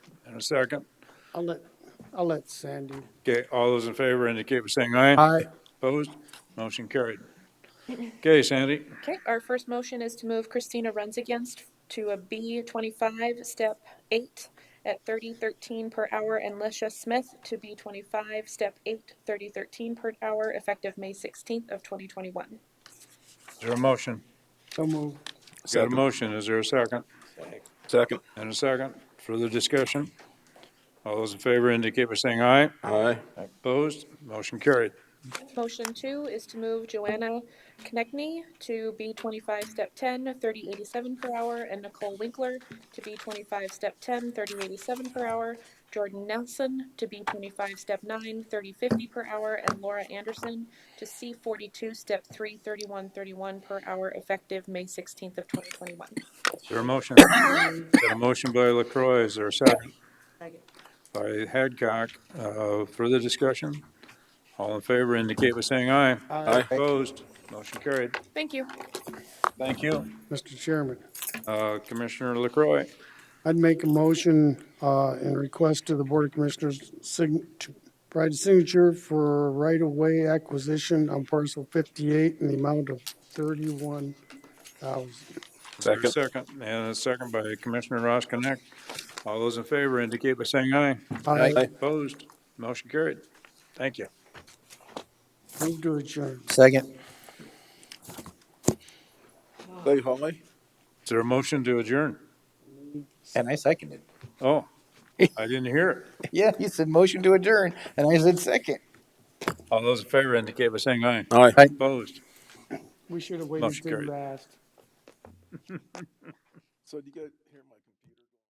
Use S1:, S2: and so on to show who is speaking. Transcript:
S1: and a second.
S2: I'll let, I'll let Sandy.
S1: Okay, all those in favor indicate by saying aye.
S2: Aye.
S1: Opposed? Motion carried. Okay, Sandy,
S3: Okay, our first motion is to move Christina Runs Against to a B twenty-five, step eight, at thirty thirteen per hour, and Lisha Smith to B twenty-five, step eight, thirty thirteen per hour, effective May sixteenth of twenty twenty-one.
S1: is there a motion?
S2: So move.
S1: Got a
S4: Second.
S1: motion, is there a second?
S4: Second.
S1: And a second, further discussion? All those in favor indicate by saying aye.
S4: Aye.
S1: Opposed? Motion carried.
S3: Motion two is to move Joanna Konechny to B twenty-five, step 10, 3087 per hour, and Nicole Winkler to B twenty-five, step 10, 3087 per hour, Jordan Nelson to B twenty-five, step 9, 3050 per hour, and Laura Anderson to C forty-two, step 3, 3131 per hour, effective May sixteenth of twenty twenty-one.
S1: Is there a motion? Got a motion by Lacroix. is there a second? By Hadcock, uh, further discussion? All in favor indicate by saying aye.
S2: Aye.
S1: Opposed? Motion carried.
S3: Thank you.
S1: Thank you.
S2: Mr. Chairman,
S1: Uh, Commissioner Lacroix.
S2: I'd make a motion uh, and request to the Board of Commissioners sign- to provide a signature for right-of-way acquisition on parcel 58 in the amount of 31,000.
S1: Is there a
S4: Second.
S1: Second, and a second by Commissioner Ross Connect. All those in favor indicate by saying aye.
S2: I
S4: Aye.
S1: Opposed? Motion carried. Thank you.
S2: move to adjourn.
S5: Second.
S4: Say hi.
S1: Is there a motion to adjourn?
S5: And I seconded.
S1: Oh, I didn't hear it.
S5: Yeah, you said motion to adjourn, and I said second.
S1: All those in favor indicate by saying aye.
S4: Aye.
S1: Opposed?
S2: We should have waited
S1: Motion
S2: till
S1: carried.
S2: last.
S4: So do you guys hear my?